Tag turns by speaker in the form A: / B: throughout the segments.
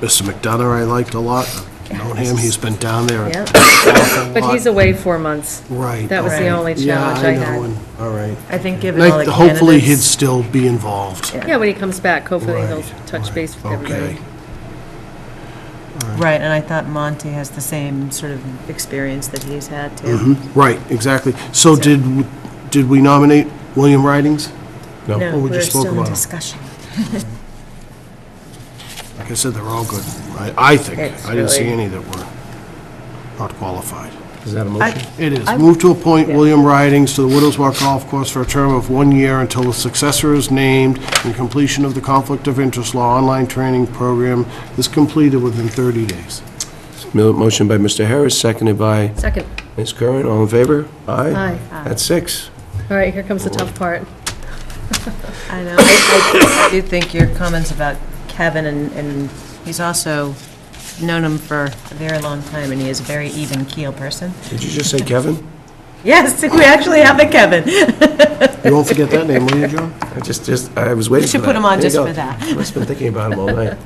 A: Mr. McDonough I liked a lot. I've Known him, he's been down there. an
B: Yeah.
A: awful
B: But
A: lot.
B: he's away four months.
A: Right.
B: That was the
A: Right.
B: only
A: Yeah,
B: challenge I
A: know,
B: had.
A: and- All right.
C: I think given all
A: Like,
C: the
A: Hopefully, he'd
C: candidates,
A: still be involved.
B: Yeah, when he comes back, hopefully he'll
A: Right,
B: touch
A: right,
B: base with
A: Okay.
B: everybody.
C: right, and I thought Monty has the same sort of experience that he's had
D: Mm-hmm.
C: too.
A: Mm-hmm. Right, exactly. So
C: So-
A: did, w- did we nominate William Ridings?
C: No,
A: Well, we
C: we're
A: just spoke
C: still in
A: about him.
C: discussion.
A: Like I said, they're all good, I, I think.
B: It's
A: I didn't see
B: really-
A: any that were not qualified.
D: Is that a
C: I-
D: motion?
A: It is.
C: I-
A: Move to appoint William Ridings to the Widows Walk Golf Course for a term of one year until a successor is named and completion of the Conflict of Interest Law online training program is completed within 30 days.
D: Mo- Motion by Mr. Harris, seconded by
B: Second.
D: Ms. Curran. All in favor? Aye.
B: Aye.
D: That's six.
B: All right, here comes the tough part.
C: I know. I do think your comments about Kevin, and, and he's also known him for a very long time, and he is a very even keel person.
D: Did you just say Kevin?
C: Yes, we actually have a Kevin. We
A: You won't forget that name, will you, John?
D: I just, just, I was waiting for that.
C: should put him on
D: There you
C: just
D: go.
C: for that.
D: Must have been thinking about him all night.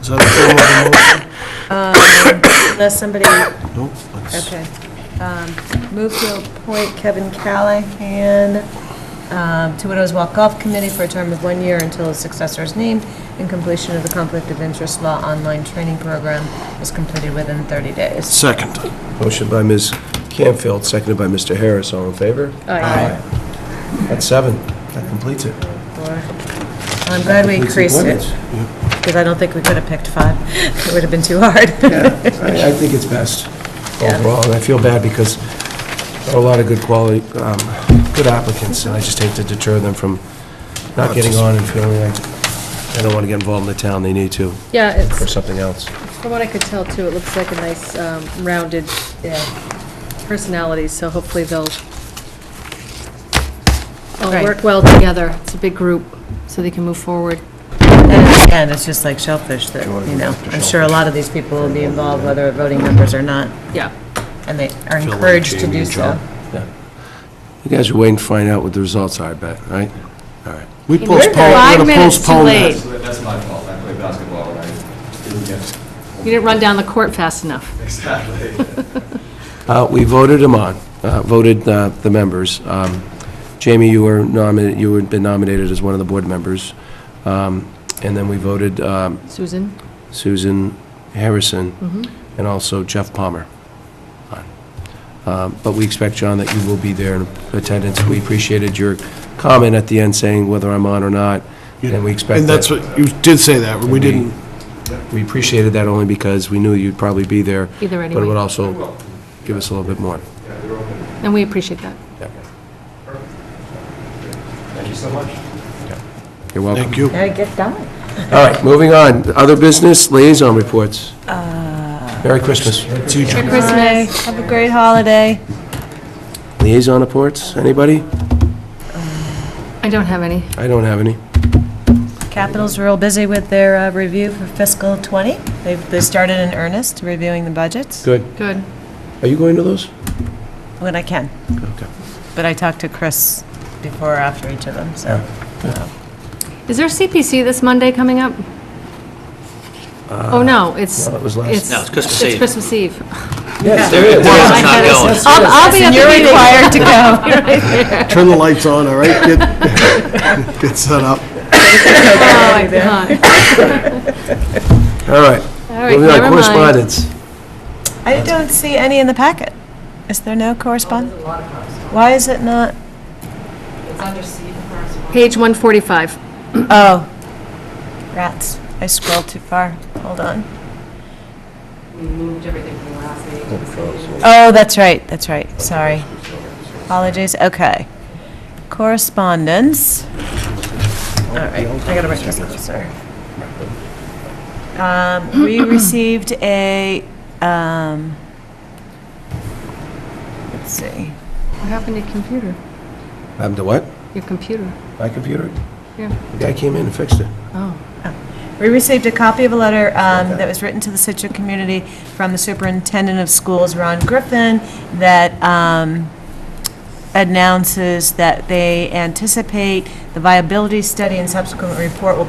A: Is that a form
C: Unless somebody,
A: of a motion? No, let's-
C: okay. Um, Move to appoint Kevin Callahan um, to Widows Walk Golf Committee for a term of one year until his successor is named and completion of the Conflict of Interest Law online training program is completed within 30 days.
A: Second.
D: Motion by Ms. Campfield, seconded by Mr. Harris. All in favor?
B: Aye.
D: That's seven. That completes it.
C: I'm glad we
D: Completes
C: increased it.
D: appointments.
C: Because I don't think we could have picked five. It would have been too hard.
D: I, I think it's best overall, and I feel bad because there are a lot of good quality, um, good applicants, and I just hate to deter them from not getting on and feeling like they don't want to get involved in the town, they need to,
B: Yeah,
D: for
B: it's,
D: something else.
B: from what I could tell too, it looks like a nice um, rounded personality, so hopefully they'll all
C: Right.
B: work well together. It's a big group, so they can move forward.
C: And again, it's just like shellfish that, you know, I'm sure a lot of these people will be involved, whether they're voting members or not,
B: Yeah.
C: and they are encouraged to
A: Jamie
C: do
A: and
C: so.
D: You guys are waiting to find out what the results are, I bet, right? All right.
A: We
E: We're
A: postponed, we're
E: five
A: going to
E: minutes too
A: postpone that.
E: late.
F: That's my fault, I play basketball, and I didn't get,
B: You didn't run down the court fast enough.
F: exactly.
D: Uh, we voted them on, uh, voted, uh, the members. Um, Jamie, you were nominated, you had been nominated as one of the board members. Um, and then we voted, um,
B: Susan?
D: Susan Harrison, and also Jeff Palmer. Um, But we expect, John, that you will be there in attendance. We appreciated your comment at the end saying whether I'm on or not, and we expect
A: And that's
D: that.
A: what, you did say that, we didn't,
D: We appreciated that only because we knew you'd probably be there.
B: Either
D: But it
B: anyway.
D: would also give us a little bit more.
B: And we appreciate that.
F: Thank you so much.
D: You're welcome.
A: thank you.
C: Now get done.
D: All right, moving on. Other business liaison reports.
B: Uh,
D: Merry Christmas.
B: Merry Christmas.
C: Have a great holiday.
D: Liaison reports, anybody?
B: I don't have any.
D: I don't have any.
C: Capitals real busy with their uh, review for fiscal '20. They've, they started in earnest reviewing the budgets
D: Good.
B: Good.
D: Are you going to those?
C: when I can.
D: Okay.
C: But I talked to Chris before or after each of them, so.
B: Is there CPC this Monday coming up? Oh, no, it's,
D: no, it was last-
B: it's...
G: No, it's Christmas Eve.
B: It's Christmas Eve.
D: Yes,
G: There is, there is, it's not going.
B: I'll, I'll be at the
C: And you're
B: meeting.
C: required to go.
A: Turn the lights on, all right? Get, get set up.
B: Oh, my God.
D: All right.
B: All right,
D: Moving on,
B: never mind.
D: Correspondence.
C: I don't see any in the packet. Is there no correspondence? Why is it not?
B: Page 145.
C: Oh, rats. I scrolled too far. Hold on. Oh, that's right, that's right. Sorry. Apologies. Okay. Correspondence. All right, I gotta write this down, sorry. Um, we received a, um, let's see.
B: What happened to your computer?
D: Happened to what?
B: Your computer?
D: My computer?
B: Yeah.
D: The guy came in and fixed it.
B: Oh.
C: We received a copy of a letter um, that was written to the Situate community from the superintendent of schools, Ron Griffin, that um, announces that they anticipate the viability study and subsequent report will be.